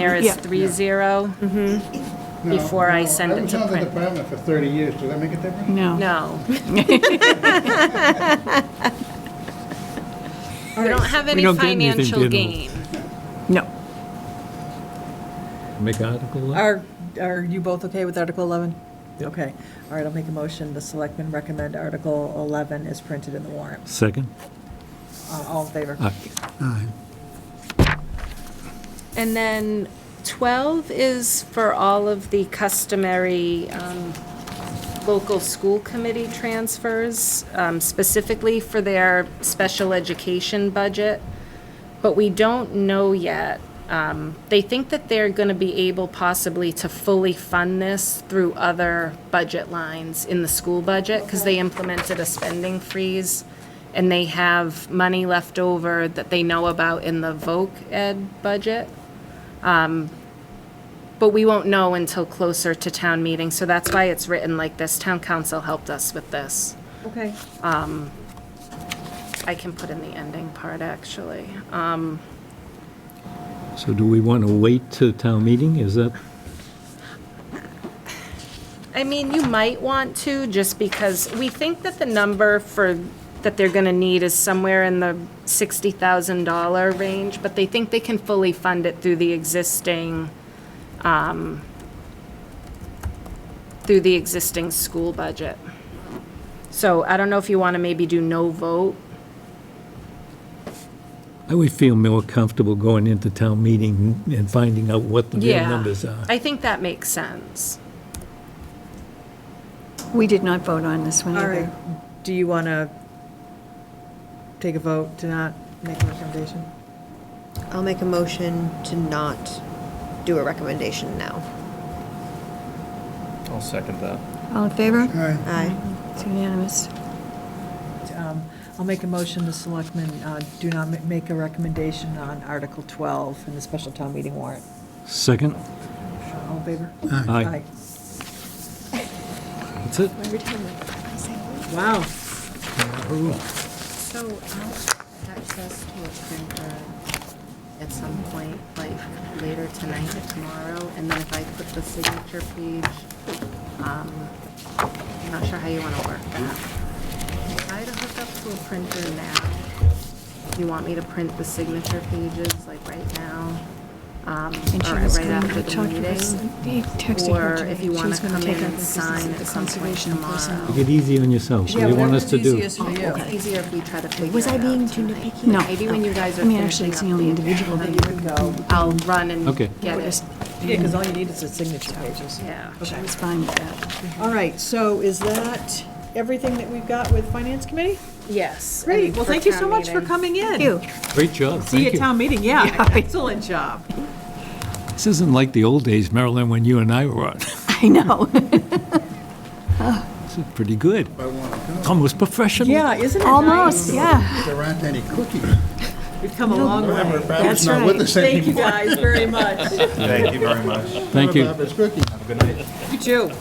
There is Yeah. three zero before I send it to I was on the print. department for 30 years, does that make a difference? No. No. We don't have any don't get anything, financial do we? gain. No. Make article eleven? Are, are you both okay with Article 11? Yep. Okay. All right, I'll make a motion. The selectmen recommend Article 11 is printed in the warrant. Second? Uh, All in favor? Aye. And then 12 is for all of the customary um, local school committee transfers, um, specifically for their special education budget. But we don't know yet. Um, They think that they're going to be able possibly to fully fund this through other budget lines in the school budget because they implemented a spending freeze and they have money left over that they know about in the voc ed budget. But we won't know until closer to town meeting, so that's why it's written like this. Town council helped us with this. Um, Okay. I can put in the ending part, actually. Uh, So do we want to wait to town meeting? Is that, I mean, you might want to, just because we think that the number for, that they're gonna need is somewhere in the sixty thousand dollar range, but they think they can fully fund it through the existing, um, through the existing school budget. So I don't know if you wanna maybe do no vote I would feel more comfortable going into town meeting and finding out what the real Yeah. numbers uh, are. I think that makes sense. We did not vote on this one All either. right. Do you want to take a vote to not make a recommendation? I'll make a motion to not do a recommendation now. I'll second that. All in favor? Aye. Aye. It's unanimous. Um, I'll make a motion, the selectmen uh, do not ma- make a recommendation on Article 12 in the special town meeting warrant. Second? All in favor? Aye. That's it? Wow. So I'll access to a printer At some point, like later tonight or tomorrow, and then if I put the signature page, um, I'm not sure how you want to work that. If I had to hook up to a printer now, you want me to print the signature pages like right now? um, And she or was right going after to the talk to us. meeting? He texted her Or today. if you wanna She's gonna come take in up and the business sign of at the some point conservation tomorrow. personnel. Take it easy on yourselves. What do you want us to do? It's easier if we try to figure Was it I out being too tonight. nitpicky? No. Maybe when you guys are I mean, finishing actually, it's up the only the- individual that then you you can Go. I'll run and Okay. get it. just- Yeah, because all you need is the signature pages. Yeah. She was fine with that. All right, so is that everything that we've got with Finance Committee? Yes. Great, and well, for thank you town so much for meeting. coming in. Thank you. Great job, See you thank at you. town meeting, yeah, excellent job. This isn't like the old days, Marilyn, when you and I were on. This I know. is pretty good. I want to go. Almost professional. Yeah, isn't it Almost, yeah. There aren't any cookies. We've come a long Remember, way. Barbara's not with right. us Thank you anymore. guys very much. Thank you very much. Thank you. Barbara's cookies. You too.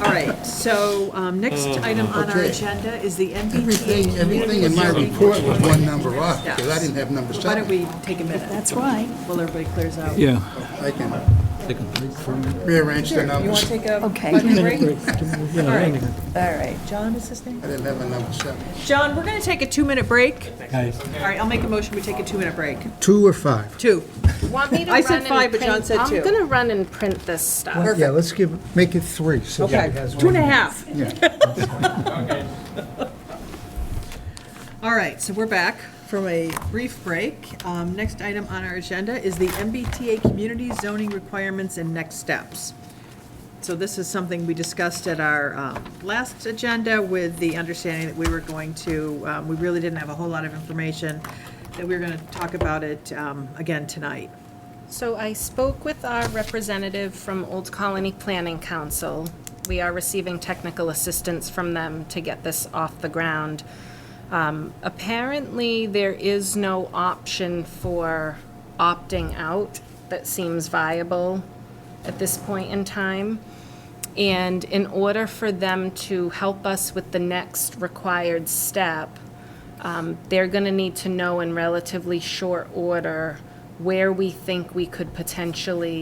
All right, so um, next item on our Uh, Okay. agenda is the Everything, MBTA. everything in my report was one number off, because I didn't have number Why don't seven. we take a minute That's why. while everybody clears out? Yeah. I can rearrange the You want to numbers. take a Okay. five minute break? Yeah, All right, all right, John is his name? I didn't have a number seven. John, we're gonna take a two-minute break. guys. All right, I'll make a motion, we take a two-minute break. Two or five? Two. Want me to I said run and five, but print- John said two. I'm gonna run and print this stuff. Yeah, let's give, make it three, so Okay, two and a half. All right, so we're back from a brief break. Um, Next item on our agenda is the MBTA Community Zoning Requirements and Next Steps. So this is something we discussed at our um, last agenda with the understanding that we were going to, um, we really didn't have a whole lot of information, that we were going to talk about it um, again tonight. So I spoke with our representative from Old Colony Planning Council. We are receiving technical assistance from them to get this off the ground. Um, Apparently, there is no option for opting out that seems viable at this point in time. And in order for them to help us with the next required step, um, they're going to need to know in relatively short order where we think we could potentially